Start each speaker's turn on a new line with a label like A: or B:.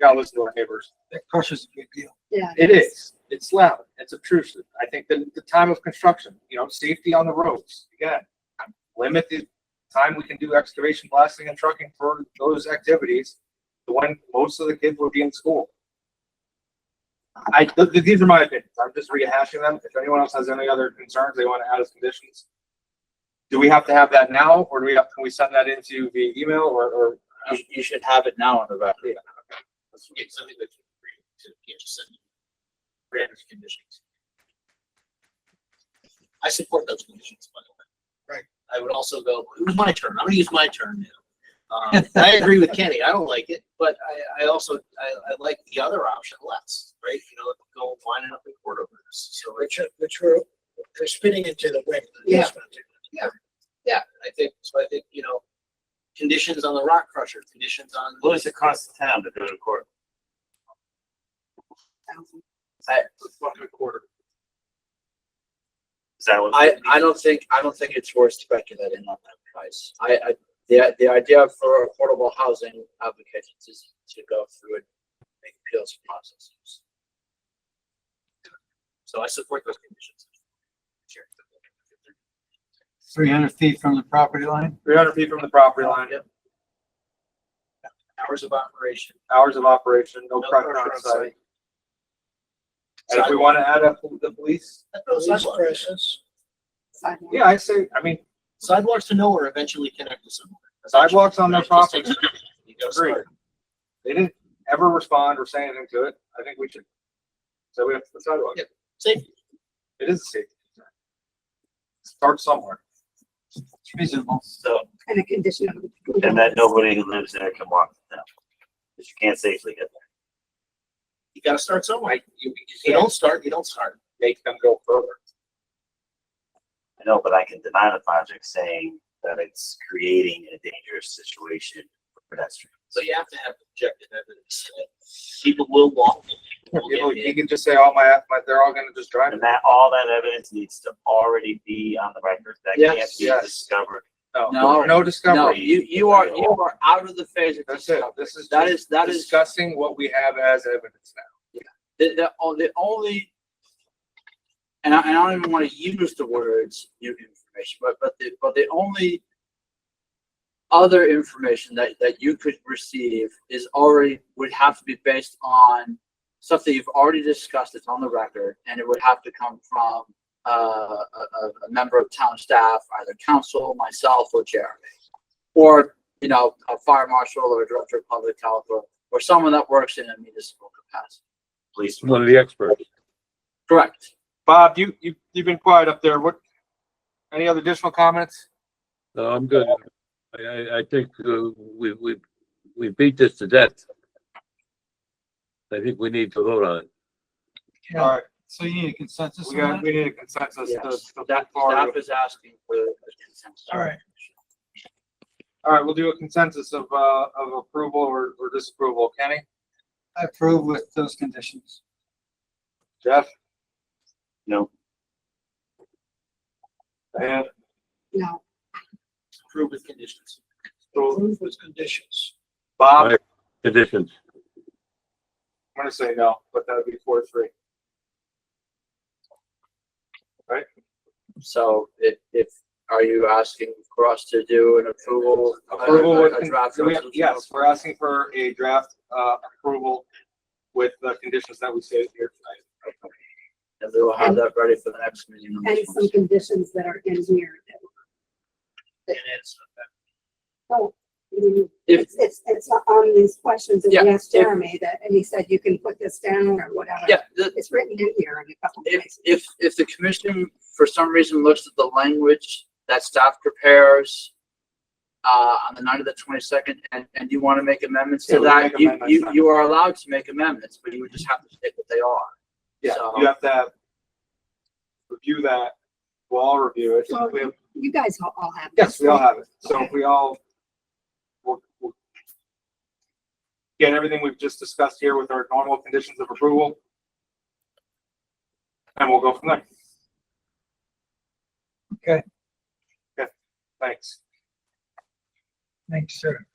A: gotta listen to our neighbors.
B: That crushes a big deal.
C: Yeah.
A: It is, it's loud, it's obtrusive. I think the, the time of construction, you know, safety on the roads, again, limit the time we can do excavation, blasting and trucking for those activities, when most of the kids would be in school. I, th- th- these are my opinions. I'm just rehashing them. If anyone else has any other concerns they want to add as conditions. Do we have to have that now or do we, have- can we send that into via email or, or?
D: You, you should have it now on the record.
E: It's something that you can read to, you know, send
D: Granted conditions.
E: I support those conditions, by the way.
B: Right.
E: I would also go, it was my turn, I'm gonna use my turn now. Um, I agree with Kenny, I don't like it, but I, I also, I, I like the other option less, right? You know, go line up in court over this, so it
F: which are, which were, they're spinning into the wind.
E: Yeah. yeah, I think, so I think, you know, conditions on the rock crusher, conditions on.
D: What does it cost the town to go to court?
A: quarter.
D: Is that what?
F: I, I don't think, I don't think it's worth speculating on that price. I, I, the, the idea for affordable housing applications is to go through and make appeals processes.
E: So I support those conditions. Sure.
B: Three hundred feet from the property line?
A: Three hundred feet from the property line,
E: Yep. Hours of operation.
A: hours of operation, no
E: No
A: pressure on
E: pressure on
A: site. And if we want to add up the police,
E: Sidewalk.
C: Sidewalk.
A: yeah, I say, I mean,
E: Sidewalks to nowhere eventually connect to somewhere.
A: sidewalks on their
E: That's just-
A: property.
E: You gotta
A: Agree.
E: start.
A: They didn't ever respond or say anything to it. I think we should. So we have to the sidewalk.
E: Yeah. Safety.
A: It is a safety. concern. Start somewhere.
B: It's reasonable.
D: So,
C: And a condition of.
D: and that nobody who lives there can walk down. Because you can't safely get there.
E: You gotta start somewhere. You, you- if you don't start, you don't start.
A: Make them go further.
D: I know, but I can deny the project saying that it's creating a dangerous situation for pedestrians.
E: So you have to have objective evidence. that People will walk. people
A: You know,
E: will
A: you
E: get
A: can just say, oh, my, my, they're all gonna just drive.
D: And that, all that evidence needs to already be on the record. That can't
F: Yes,
D: be
A: yes.
D: discovered.
A: No,
F: No.
A: no
F: No,
A: discovery.
F: you, you are, you are out of the phase of
A: That's it.
F: discovery.
A: This is
F: That
A: just
F: is, that is, the,
A: Discussing what we have as evidence now.
F: the, on- the only, and I, and I don't even want to use the words new information, but, but the, but the only other information that, that you could receive is already, would have to be based on stuff that you've already discussed, it's on the record, and it would have to come from, uh, a, a, a member of town staff, either council, myself, or Jeremy. Or, you know, a fire marshal or a director of public health, or, or someone that works in a municipal capacity.
D: Police.
G: One of the experts.
F: Correct.
A: Bob, you, you, you've been quiet up there. What, any other additional comments?
G: No, I'm good. I, I, I think uh, we, we, we beat this to death. I think we need to vote on it.
B: Yeah.
A: All right,
B: So you need a consensus
A: we
B: on
A: got,
B: that?
A: we need a consensus to,
F: Yes.
A: to
F: That,
A: move forward.
F: staff is asking for a consensus.
B: All right.
A: All right, we'll do a consensus of, uh, of approval or, or disapproval. Kenny,
B: I approve with those conditions.
A: Jeff,
D: No,
A: and
C: No.
E: approved with conditions.
A: so
E: with conditions.
A: Bob, I'm
G: Aye. Conditions.
A: gonna say no, but that would be four, three.
F: So if, if, are you asking for us to do an approval?
A: Approval with,
F: A draft
A: do we have-
F: resolution?
A: yes, we're asking for a draft, uh, approval with the conditions that we stated here tonight.
F: And we will have that ready for the next meeting. on
C: And
F: this one.
C: some conditions that are in here.
E: And it's,
C: Oh, mm,
F: If-
C: It's, it's, it's on these questions that
F: Yeah,
C: we asked
F: if-
C: Jeremy that, and he said you can put this down or whatever.
F: Yeah, the-
C: It's written in here in a couple
F: if,
C: places.
F: if, if the commission for some reason looks at the language that staff prepares uh, on the night of the twenty-second, and, and you want to make amendments
A: Yeah,
F: to
A: we can
F: that,
A: make
F: you,
A: amendments
F: you,
A: then.
F: you are allowed to make amendments, but you would just have to state what they are.
A: Yeah,
F: So-
A: you have to have- review that. We'll all review it.
C: Well,
A: We have-
C: You guys all- all have.
A: Yes,
C: this,
A: we all
C: right?
A: have it. So if
C: Okay.
A: we all we'll- we'll get everything we've just discussed here with our normal conditions of approval. And we'll go from there.
B: Okay.
A: Okay, thanks.
B: Thanks, sir.